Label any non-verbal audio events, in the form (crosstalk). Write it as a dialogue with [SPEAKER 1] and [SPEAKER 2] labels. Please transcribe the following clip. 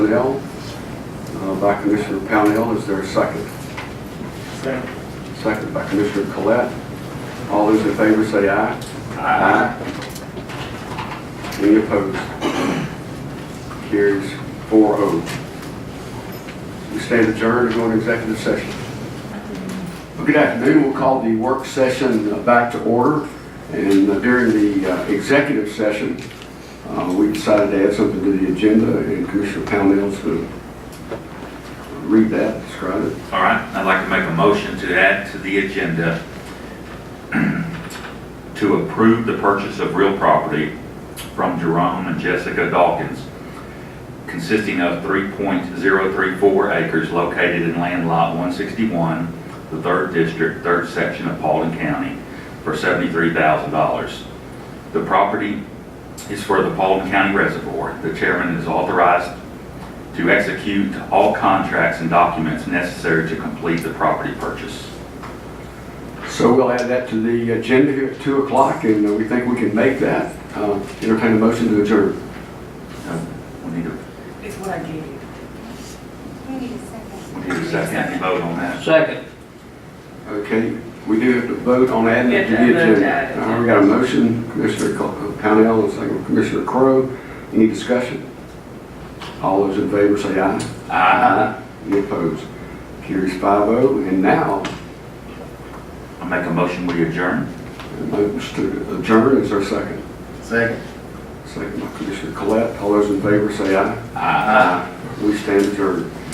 [SPEAKER 1] Mandel, uh, by Commissioner Pownell. Is there a second?
[SPEAKER 2] Second.
[SPEAKER 1] Second by Commissioner Collette. All those in favor say aye. Aye. Any opposed? Carries 4-0. We stand adjourned to go into executive session. Well, Good afternoon. We'll call the work session uh, back to order. And uh, during the uh, executive session, uh, we decided to add something to the agenda, and Commissioner Pownell's going to read that, describe it.
[SPEAKER 3] All right, I'd like to make a motion to add to the agenda (clears throat) to approve the purchase of real property from Jerome and Jessica Dawkins consisting of 3.034 acres located in land lot 161, the 3rd District, 3rd Section of Paulding County, for $73,000. The property is for the Paulding County Reservoir. The chairman is authorized to execute all contracts and documents necessary to complete the property purchase.
[SPEAKER 1] So we'll add that to the agenda here at 2 o'clock, and uh, we think we can make that. Uh, Entertain a motion to adjourn.
[SPEAKER 3] Uh, We need a,
[SPEAKER 4] It's what I gave you.
[SPEAKER 5] We need a second.
[SPEAKER 3] we need a second vote on that.
[SPEAKER 2] Second.
[SPEAKER 1] Okay, we do have to vote on adding it to
[SPEAKER 4] Yeah,
[SPEAKER 1] the
[SPEAKER 4] vote to
[SPEAKER 1] agenda.
[SPEAKER 4] add it.
[SPEAKER 1] All right, we got a motion, Commissioner Co- uh, Pownell, and second Commissioner Crowe. Any discussion? All those in favor say aye.
[SPEAKER 3] Aye.
[SPEAKER 1] Any opposed? Carries 5-0, and now,
[SPEAKER 3] I make a motion, we adjourn.
[SPEAKER 1] a motion to adjourn is our second.
[SPEAKER 2] Second.
[SPEAKER 1] Second by Commissioner Collette. All those in favor say aye.
[SPEAKER 3] Aye.
[SPEAKER 1] We stand adjourned.